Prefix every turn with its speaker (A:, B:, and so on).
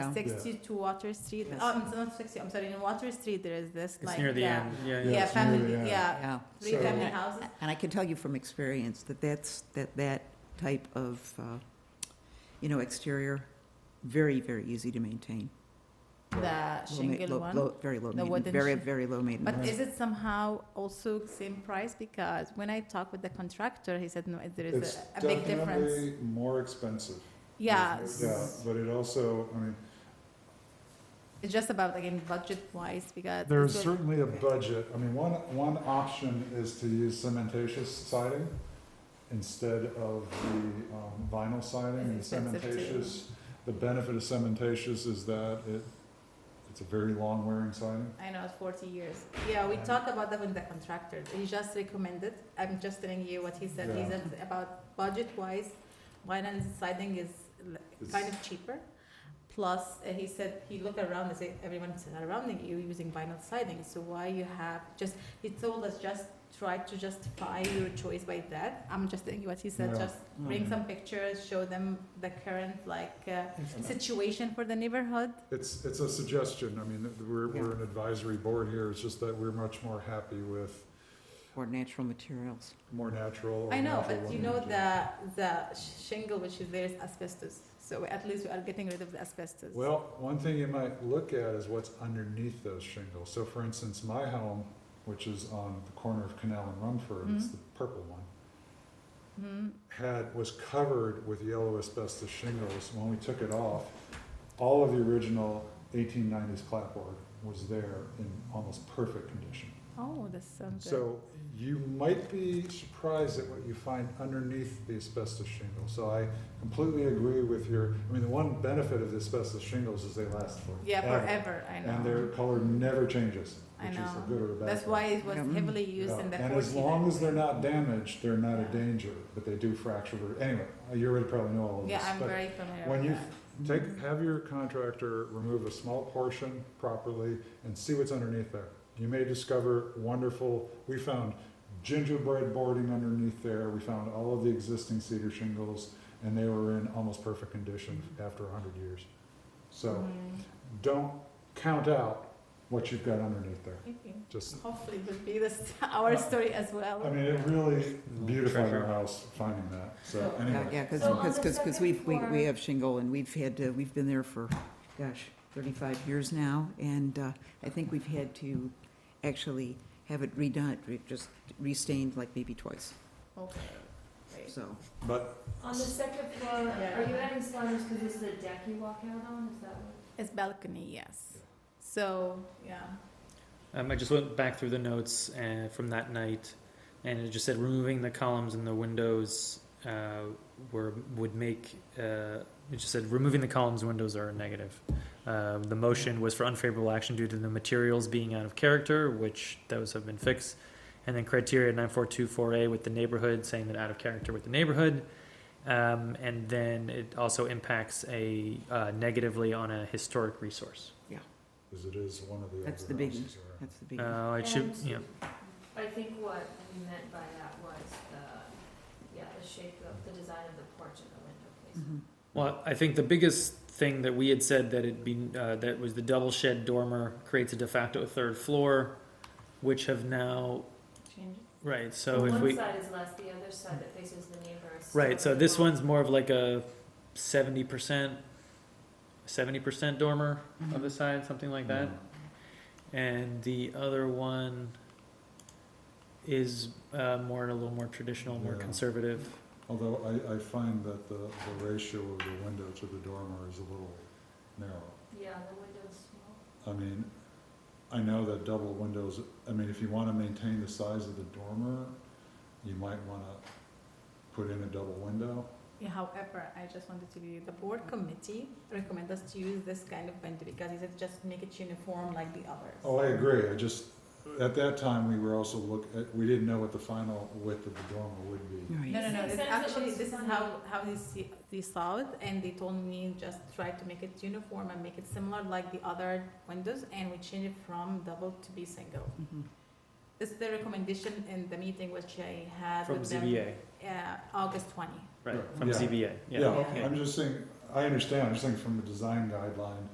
A: Yeah.
B: sixty to Water Street.
A: Yes.
B: Um, it's not sixty. I'm sorry. In Water Street, there is this.
C: It's
B: like,
C: near the
B: yeah,
C: end, yeah,
B: Yeah,
C: yeah.
A: it's near
B: family.
A: the
B: Yeah,
A: end.
D: Yeah.
B: three
A: So-
B: family houses.
D: And I can tell you from experience that that's, that that type of, uh, you know, exterior, very, very easy to maintain.
B: The
D: Low ma-
B: shingle
D: low-
B: one.
D: low- Very low
B: The
D: maintenance,
B: wooden
D: very,
B: shi-
D: very low
B: But
D: maintenance.
B: is it somehow also same price? Because when I talked with the contractor, he said no, there is
A: It's
B: a, a big difference.
A: definitely more expensive.
B: Yeah,
A: Yeah,
B: s-
A: but it also, I mean,
B: it's just about again budget wise because
A: there's
B: it's-
A: certainly a budget. I mean, one, one option is to use cementatious siding instead of the um, vinyl siding. And
B: It's expensive too.
A: cementatious, the benefit of cementatious is that it, it's a very long wearing siding.
B: I know, 40 years. Yeah, we
A: Yeah.
B: talk about that with the contractor. He just recommended, I'm just telling you what he said. He
A: Yeah.
B: said about budget wise, vinyl siding is l-
A: It's-
B: kind of cheaper. Plus, uh, he said, he looked around and said, everyone's around you using vinyl siding. So why you have just, he told us just try to justify your choice by that. I'm just telling you what he said.
A: Yeah.
B: Just
A: Mm.
B: bring some pictures, show them the current like uh, situation for the neighborhood.
A: It's, it's a suggestion. I mean, we're, we're an advisory board here. It's just that we're much more happy with
D: Or natural materials.
A: more natural or
B: I know,
A: natural
B: but you
A: looking
B: know
A: material.
B: the the shingle which is there is asbestos. So at least we are getting rid of the asbestos.
A: Well, one thing you might look at is what's underneath those shingles. So for instance, my home, which is on the corner of Canal and Rumford, it's
B: Mhm.
A: the purple one,
B: hmm
A: had, was covered with yellow asbestos shingles. When we took it off, all of the original eighteen nineties clapboard was there in almost perfect condition.
B: Oh, that sounds good.
A: So you might be surprised at what you find underneath the asbestos shingle. So I completely agree with your, I mean, the one benefit of the asbestos shingles is they last for
B: yeah, forever. I know.
A: uh, and their color never changes,
B: I
A: which is a
B: know.
A: good or a bad.
B: That's
A: thing.
B: why it was
D: Yeah.
B: heavily used
A: Yeah.
B: in the
A: And
B: 40s
A: as long as they're
B: anyway.
A: not damaged, they're not a
B: Yeah.
A: danger, but they do fracture, or- anyway, you already probably know all of this.
B: Yeah, I'm
A: but
B: very familiar.
A: When
B: with
A: you
B: that.
A: take, have your contractor remove a small portion properly and see what's underneath there. You may discover wonderful, we found gingerbread boarding underneath there, we found all of the existing cedar shingles, and they were in almost perfect condition after a hundred years. So,
B: Mm,
A: don't count out what you've got underneath there.
B: okay.
A: Just,
B: Hopefully, it will be this our story as well.
A: Uh, I mean, it really beautified
C: Treasure.
A: our house finding that, so
D: Yeah,
A: anyway.
D: yeah, because,
E: So on
D: because,
E: the
D: because, because
E: second
D: we've, we, we
E: floor-
D: have shingle and we've had, uh, we've been there for, gosh, thirty-five years now. And, uh, I think we've had to actually have it redone, re- just restained like maybe twice,
B: okay. Great.
D: so.
A: But
E: On the second floor,
B: Yeah.
E: are you adding sliders because this is a deck you walk out on, is that what?
B: It's balcony, yes. So yeah.
C: Um, I just went back through the notes uh, from that night, and it just said removing the columns and the windows uh, were would make. Uh, it just said removing the columns and windows are a negative. Uh, the motion was for unfavorable action due to the materials being out of character, which those have been fixed, and then criteria nine four two four a with the neighborhood saying that out of character with the neighborhood. Um, and then it also impacts a uh, negatively on a historic resource.
A: as it is one of the
D: That's
A: older
D: the biggie.
A: houses around.
D: That's the big,
C: Uh, it should,
E: And
C: yeah.
E: I think what we meant by that was the, yeah, the shape of, the design of the porch and the window
C: Hmm.
E: placement.
D: Mhm.
C: Well, I think the biggest thing that we had said that it'd be, uh, that was the double shed dormer creates a de facto third floor, which have now,
B: Change. it.
C: right, so if we,
E: One side is less, the other side that faces the neighbor is.
C: right, so
E: smaller.
C: this one's more of like a seventy percent, seventy percent dormer
D: Mm-hmm.
C: on the side, something like that.
A: Mm-hmm.
C: And the other one is, uh, more, a little more traditional, more
A: Yeah.
C: conservative.
A: Although I, I find that the, the ratio of the window to the dormer is a little narrow.
E: Yeah, the window's small.
A: I mean, I know that double windows, I mean, if you wanna maintain the size of the dormer, you might wanna put in a double window.
B: Yeah, however, I just wanted to be, the board
E: Mm-hmm.
B: committee recommend us to use this kind of window because it said just make it uniform like the others.
A: Oh, I agree, I just, at that time, we were also look, at- we didn't know what the final width of the dormer would be.
D: Right.
B: No, no, no,
E: Makes
B: it's
E: sense, it
B: actually,
E: looks
B: this is
E: funny.
B: how, how they see, they saw it and they told me just try to make it uniform and make it similar like the other windows and we change it from double to be single.
D: Mhm.
B: This is the recommendation in the meeting which I had
C: From
B: with them.
C: ZBA,
B: Uh, August twenty.
C: right, from
A: Yeah.
C: ZBA, yeah.
A: Yeah, I'm just saying, I understand, I'm just saying from a design guideline,